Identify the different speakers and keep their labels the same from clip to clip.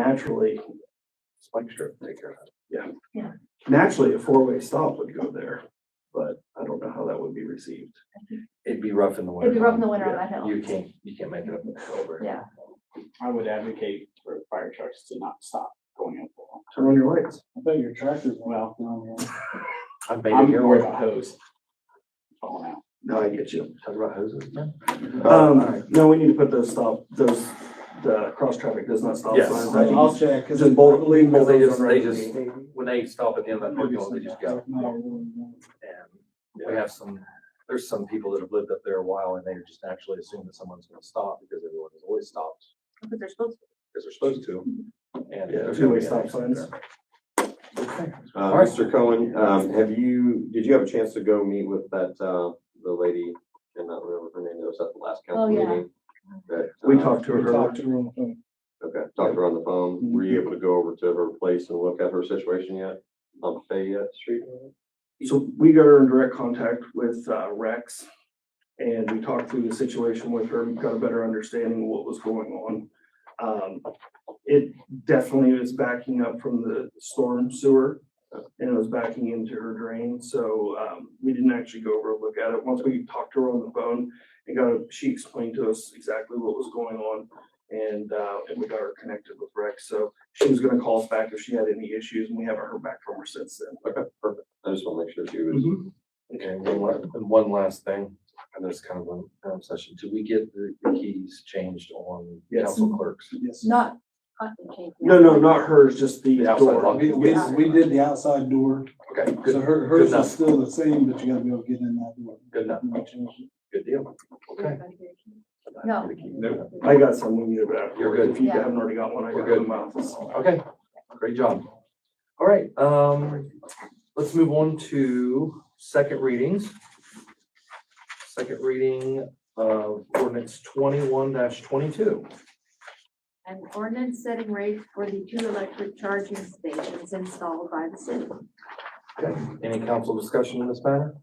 Speaker 1: naturally, spike strip, take care of it. Yeah.
Speaker 2: Yeah.
Speaker 1: Naturally, a four-way stop would go there, but I don't know how that would be received.
Speaker 3: It'd be rough in the winter.
Speaker 2: It'd be rough in the winter on that hill.
Speaker 3: You can't, you can't make it up in October.
Speaker 2: Yeah.
Speaker 4: I would advocate for fire trucks to not stop going up. the wall.
Speaker 1: Turn on your lights.
Speaker 4: I bet your tractor's well. no, no.
Speaker 3: I'm
Speaker 4: I'm
Speaker 3: baiting your
Speaker 4: worried
Speaker 3: way.
Speaker 4: about hose. Falling out.
Speaker 1: No, I get you.
Speaker 3: Talk about hoses, man.
Speaker 4: Oh,
Speaker 1: Um, no, we need to put those stop, those, the cross traffic does not stop
Speaker 3: Yes.
Speaker 1: signs. I
Speaker 5: I'll
Speaker 1: think
Speaker 5: check.
Speaker 1: Just bold, leave
Speaker 3: Well,
Speaker 1: those
Speaker 3: they just,
Speaker 1: on
Speaker 3: they
Speaker 1: right.
Speaker 3: just, when they stop at the end of that parking lot, they just go. And we have some, there's some people that have lived up there a while and they just naturally assume that someone's gonna stop because everyone has always stopped,
Speaker 2: But they're supposed to.
Speaker 3: because they're supposed to. And
Speaker 1: Yeah,
Speaker 3: there's
Speaker 1: two-way
Speaker 3: gonna be an
Speaker 1: stop
Speaker 3: accident
Speaker 1: signs.
Speaker 3: there.
Speaker 6: Uh,
Speaker 3: All right.
Speaker 6: Mr. Cohen, um, have you, did you have a chance to go meet with that, uh, the lady, I cannot remember her name, that was at the last
Speaker 2: Oh,
Speaker 6: council
Speaker 2: yeah.
Speaker 6: meeting? That,
Speaker 1: We
Speaker 6: uh,
Speaker 1: talked to
Speaker 4: We
Speaker 1: her.
Speaker 4: talked to her on the phone.
Speaker 6: Okay, talked to her on the phone. Were you able to go over to her place and look at her situation yet? On Fayette Street?
Speaker 1: So we got her in direct contact with uh, Rex. And we talked through the situation with her, got a better understanding of what was going on. Um, It definitely was backing up from the storm sewer. uh, And it was backing into her drain, so um, we didn't actually go over and look at it. Once we talked to her on the phone. And got, a- she explained to us exactly what was going on. And uh, and we got her connected with Rex, so she was gonna call us back if she had any issues, and we haven't heard back from her since then.
Speaker 6: I just want to make sure she was,
Speaker 3: Okay, and one last, and one last thing, and this is kind of a um, session, did we get the the keys changed on
Speaker 1: Yes.
Speaker 3: council clerks?
Speaker 4: Yes.
Speaker 2: Not. cotton candy.
Speaker 1: No, no, not hers, just the
Speaker 3: The outside
Speaker 1: door.
Speaker 3: lock.
Speaker 5: We, we, we did the outside door,
Speaker 3: Okay,
Speaker 5: so
Speaker 3: good,
Speaker 5: her, hers
Speaker 3: enough.
Speaker 5: is still the same, but you gotta be able to get in that door.
Speaker 3: good enough, good deal. Okay.
Speaker 2: No.
Speaker 3: Nope.
Speaker 1: I got some when you get back.
Speaker 3: You're good.
Speaker 1: If you
Speaker 2: Yeah.
Speaker 1: haven't already got one, I
Speaker 3: We're
Speaker 1: got
Speaker 3: good.
Speaker 1: one in my office.
Speaker 3: Okay, great job. All right, um, let's move on to second readings. Second reading of ordinance twenty-one twenty-two.
Speaker 2: An ordinance setting rate for the two electric charging stations installed by the city.
Speaker 3: Okay, any council discussion in this matter?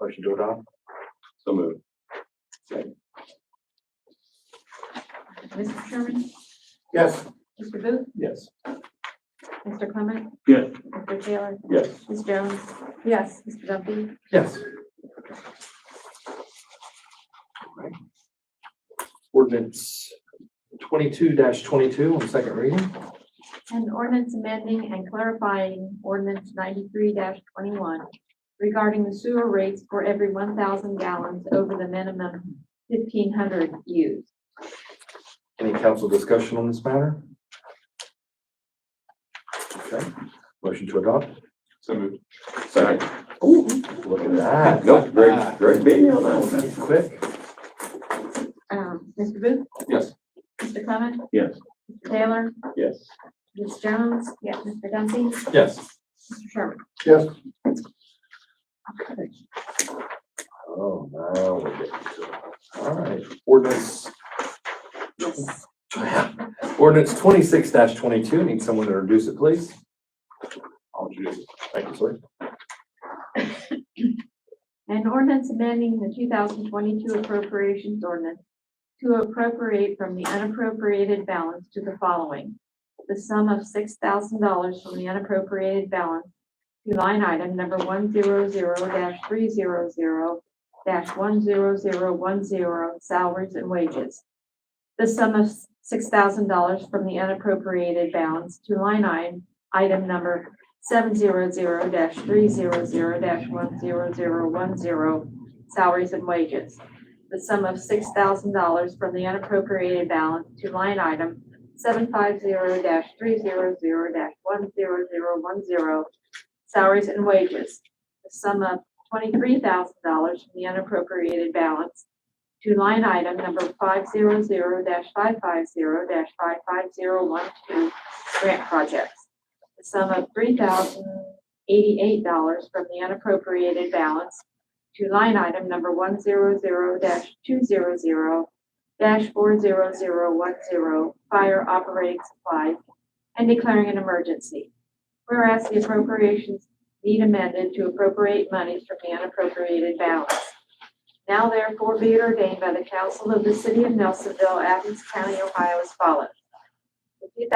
Speaker 3: Motion to adopt?
Speaker 6: so moved.
Speaker 2: Mr. Sherman?
Speaker 3: Yes.
Speaker 2: Mr. Booth?
Speaker 3: Yes.
Speaker 2: Mr. Clement?
Speaker 1: Yes.
Speaker 2: Mr. Taylor?
Speaker 6: Yes.
Speaker 2: Ms. Jones? Yes. Mr. Duffy?
Speaker 3: Yes. Ordinance twenty-two twenty-two on second reading.
Speaker 2: An ordinance amending and clarifying ordinance ninety-three twenty-one regarding the sewer rates for every one thousand gallons over the minimum fifteen hundred used.
Speaker 3: Any council discussion on this matter? Okay, motion to adopt?
Speaker 6: So moved. Second.
Speaker 3: Look at that.
Speaker 6: Nope, great, great meeting on that.
Speaker 3: That's quick.
Speaker 2: Um, Mr. Booth?
Speaker 6: Yes.
Speaker 2: Mr. Clement?
Speaker 6: Yes.
Speaker 2: Mr. Taylor?
Speaker 6: Yes.
Speaker 2: Ms. Jones? Yes. Mr. Dumpy? Mr.
Speaker 3: Yes.
Speaker 2: Sherman?
Speaker 3: Oh, now we're getting to it. All right, ordinance,
Speaker 2: Yes.
Speaker 3: ordinance twenty-six twenty-two. Need someone to introduce it, please.
Speaker 6: I'll introduce.
Speaker 3: Thank you, sir.
Speaker 2: An ordinance amending the two thousand twenty-two appropriations ordinance to appropriate from the unappropriated balance to the following. The sum of six thousand dollars from the unappropriated balance to line item number one zero zero three zero zero one zero zero one zero salaries and wages. The sum of six thousand dollars from the unappropriated balance to line item, item number seven zero zero dash three zero zero dash one zero zero one zero, salaries and wages. The sum of six thousand dollars from the unappropriated balance to line item seven five zero dash three zero zero dash one zero zero one zero, salaries and wages. The sum of twenty-three thousand dollars from the unappropriated balance to line item number five zero zero dash five five zero dash five five zero one two, grant projects the sum of three thousand eighty-eight dollars from the unappropriated balance to line item number one zero zero two zero zero four zero zero one zero, fire operating supplies, and declaring an emergency. Whereas the appropriations need amended to appropriate monies from the unappropriated balance. Now therefore be it ordained by the council of the city of Nelsonville, Athens County, Ohio as follows.